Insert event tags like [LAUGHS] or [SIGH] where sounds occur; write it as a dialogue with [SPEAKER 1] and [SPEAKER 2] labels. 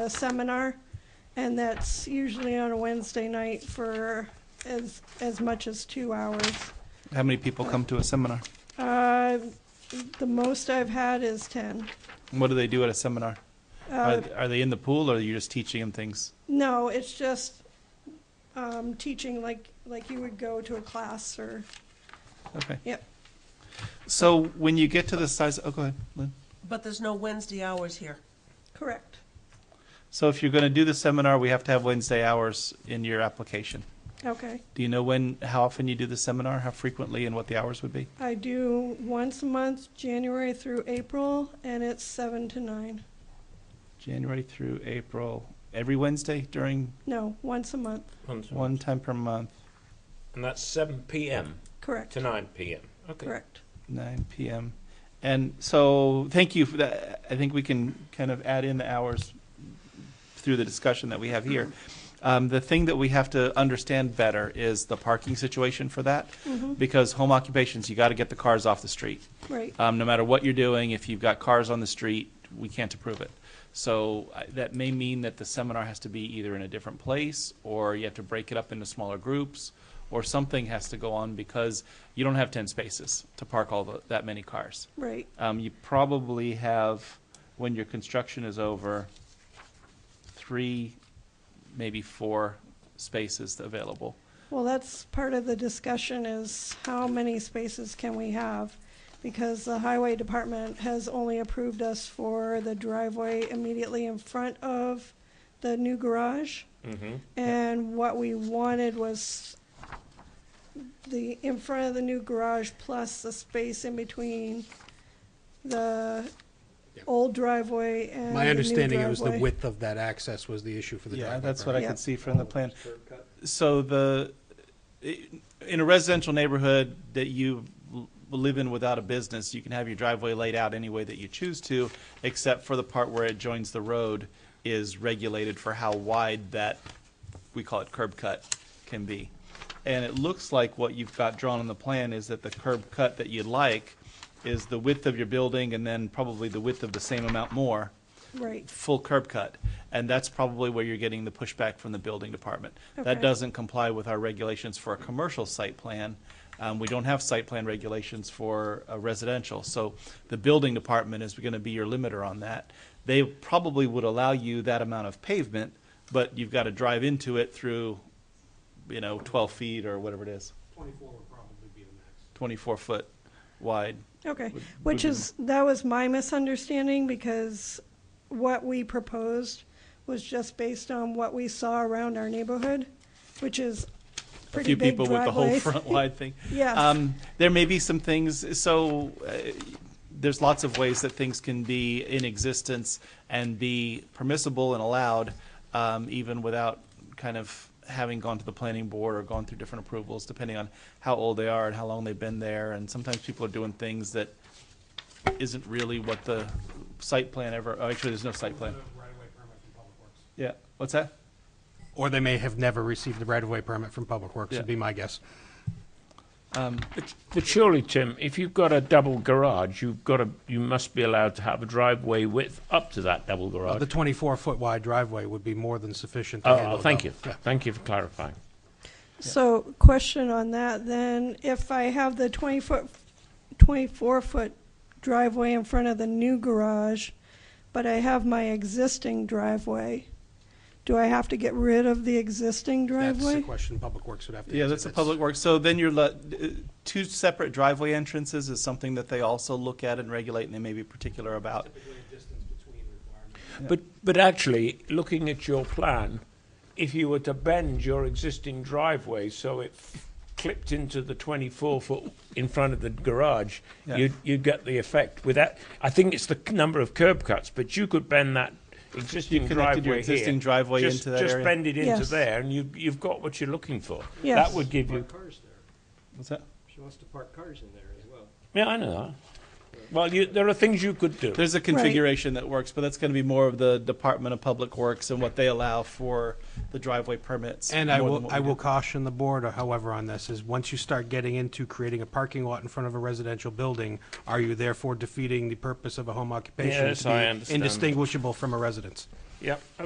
[SPEAKER 1] a seminar, and that's usually on a Wednesday night for as, as much as two hours.
[SPEAKER 2] How many people come to a seminar?
[SPEAKER 1] Uh, The most I've had is 10.
[SPEAKER 2] What do they do at a seminar?
[SPEAKER 1] Uh,
[SPEAKER 2] are, are they in the pool, or are you just teaching them things?
[SPEAKER 1] No, it's just um, teaching like, like you would go to a class or,
[SPEAKER 2] Okay.
[SPEAKER 1] Yep.
[SPEAKER 2] So when you get to the size, oh, go ahead, Lynn.
[SPEAKER 3] But there's no Wednesday hours here.
[SPEAKER 1] correct,
[SPEAKER 2] So if you're going to do the seminar, we have to have Wednesday hours in your application.
[SPEAKER 1] okay.
[SPEAKER 2] Do you know when, how often you do the seminar, how frequently, and what the hours would be?
[SPEAKER 1] I do once a month, January through April, and it's seven to nine.
[SPEAKER 2] January through April, every Wednesday during
[SPEAKER 1] No, once a month,
[SPEAKER 2] one time per month,
[SPEAKER 4] And that's 7 p.m.
[SPEAKER 1] correct,
[SPEAKER 4] to 9 p.m. Okay.
[SPEAKER 1] correct.
[SPEAKER 2] 9 p.m. And so, thank you for that. I think we can kind of add in the hours through the discussion that we have here. Um, the thing that we have to understand better is the parking situation for that,
[SPEAKER 1] Mhm.
[SPEAKER 2] because home occupations, you got to get the cars off the street.
[SPEAKER 1] Right,
[SPEAKER 2] Um, no matter what you're doing, if you've got cars on the street, we can't approve it. So I- that may mean that the seminar has to be either in a different place, or you have to break it up into smaller groups, or something has to go on because you don't have ten spaces to park all the, that many cars.
[SPEAKER 1] right,
[SPEAKER 2] Um, you probably have, when your construction is over, three, maybe four spaces available.
[SPEAKER 1] well, that's part of the discussion is how many spaces can we have? Because the highway department has only approved us for the driveway immediately in front of the new garage.
[SPEAKER 4] Mm-hmm.
[SPEAKER 1] And what we wanted was the, in front of the new garage plus the space in between the old driveway and the
[SPEAKER 5] My
[SPEAKER 1] Uh, new
[SPEAKER 5] understanding it was the
[SPEAKER 1] driveway.
[SPEAKER 5] width of that access was the issue for the
[SPEAKER 2] Yeah,
[SPEAKER 5] driveway.
[SPEAKER 2] that's what
[SPEAKER 5] permit.
[SPEAKER 2] I
[SPEAKER 1] Yeah.
[SPEAKER 2] could see from the plan. So the, in a residential neighborhood that you l- live in without a business, you can have your driveway laid out any way that you choose to, except for the part where it joins the road is regulated for how wide that, we call it curb cut, can be. And it looks like what you've got drawn on the plan is that the curb cut that you'd like is the width of your building and then probably the width of the same amount more
[SPEAKER 1] Right,
[SPEAKER 2] full curb cut, and that's probably where you're getting the pushback from the building department. That
[SPEAKER 1] Okay.
[SPEAKER 2] doesn't comply with our regulations for a commercial site plan. Um, we don't have site plan regulations for a residential, so the building department is gonna be your limiter on that. They probably would allow you that amount of pavement, but you've gotta drive into it through, you know, twelve feet or whatever it is,
[SPEAKER 5] Twenty-four would probably be the max.
[SPEAKER 2] twenty-four foot wide.
[SPEAKER 1] okay,
[SPEAKER 2] Would- would
[SPEAKER 1] which
[SPEAKER 2] you-
[SPEAKER 1] is, that was my misunderstanding because what we proposed was just based on what we saw around our neighborhood, which is
[SPEAKER 2] A
[SPEAKER 1] pretty
[SPEAKER 2] few
[SPEAKER 1] big
[SPEAKER 2] people with the whole
[SPEAKER 1] driveways. [LAUGHS]
[SPEAKER 2] front wide thing.
[SPEAKER 1] Yes.
[SPEAKER 2] Um, there may be some things, so uh, there's lots of ways that things can be in existence and be permissible and allowed, um, even without kind of having gone to the planning board or gone through different approvals, depending on how old they are and how long they've been there. And sometimes people are doing things that isn't really what the site plan ever, oh, actually, there's no site plan. Yeah, what's that?
[SPEAKER 5] Or they may have never received the right-of-way permit from Public Works, would
[SPEAKER 2] Yeah.
[SPEAKER 5] be my guess.
[SPEAKER 6] But, but surely, Tim, if you've got a double garage, you've got a, you must be allowed to have a driveway width up to that double garage.
[SPEAKER 5] The twenty-four foot wide driveway would be more than sufficient to
[SPEAKER 6] oh,
[SPEAKER 5] handle
[SPEAKER 6] oh,
[SPEAKER 5] it
[SPEAKER 6] thank
[SPEAKER 5] all.
[SPEAKER 6] you,
[SPEAKER 5] Yeah.
[SPEAKER 6] thank you for clarifying.
[SPEAKER 1] So, question on that, then, if I have the twenty-foot, twenty-four-foot driveway in front of the new garage, but I have my existing driveway, do I have to get rid of the existing
[SPEAKER 5] That's the
[SPEAKER 1] driveway?
[SPEAKER 5] question Public Works would have to answer.
[SPEAKER 2] Yeah, that's a public work. So then you're, le- uh, two separate driveway entrances is something that they also look at and regulate, and they may be particular about.
[SPEAKER 6] But, but actually, looking at your plan, if you were to bend your existing driveway so it f- clipped into the 24 foot in front of the garage,
[SPEAKER 2] Yeah.
[SPEAKER 6] you'd, you'd get the effect with that. I think it's the c- number of curb cuts, but you could bend that existing
[SPEAKER 2] connected
[SPEAKER 6] driveway
[SPEAKER 2] your existing
[SPEAKER 6] here,
[SPEAKER 2] driveway
[SPEAKER 6] just,
[SPEAKER 2] into that
[SPEAKER 6] just
[SPEAKER 2] area.
[SPEAKER 6] bend it into
[SPEAKER 1] Yes.
[SPEAKER 6] there, and you, you've got what you're looking for.
[SPEAKER 1] Yes.
[SPEAKER 6] That would give you.
[SPEAKER 7] cars there.
[SPEAKER 2] What's that?
[SPEAKER 7] She wants to park cars in there as well.
[SPEAKER 6] Yeah, I know that. Well, you, there are things you could do.
[SPEAKER 2] There's a configuration that works, but that's going to be more of the Department of Public Works and what they allow for the driveway permits.
[SPEAKER 5] And I
[SPEAKER 2] more than
[SPEAKER 5] will,
[SPEAKER 2] what
[SPEAKER 5] I
[SPEAKER 2] we
[SPEAKER 5] will
[SPEAKER 2] do.
[SPEAKER 5] caution the board, or however, on this, is once you start getting into creating a parking lot in front of a residential building, are you therefore defeating the purpose of a home occupation?
[SPEAKER 6] Yes,
[SPEAKER 5] to
[SPEAKER 6] I
[SPEAKER 5] be
[SPEAKER 6] understand.
[SPEAKER 5] Indistinguishable from a residence?
[SPEAKER 6] Yep.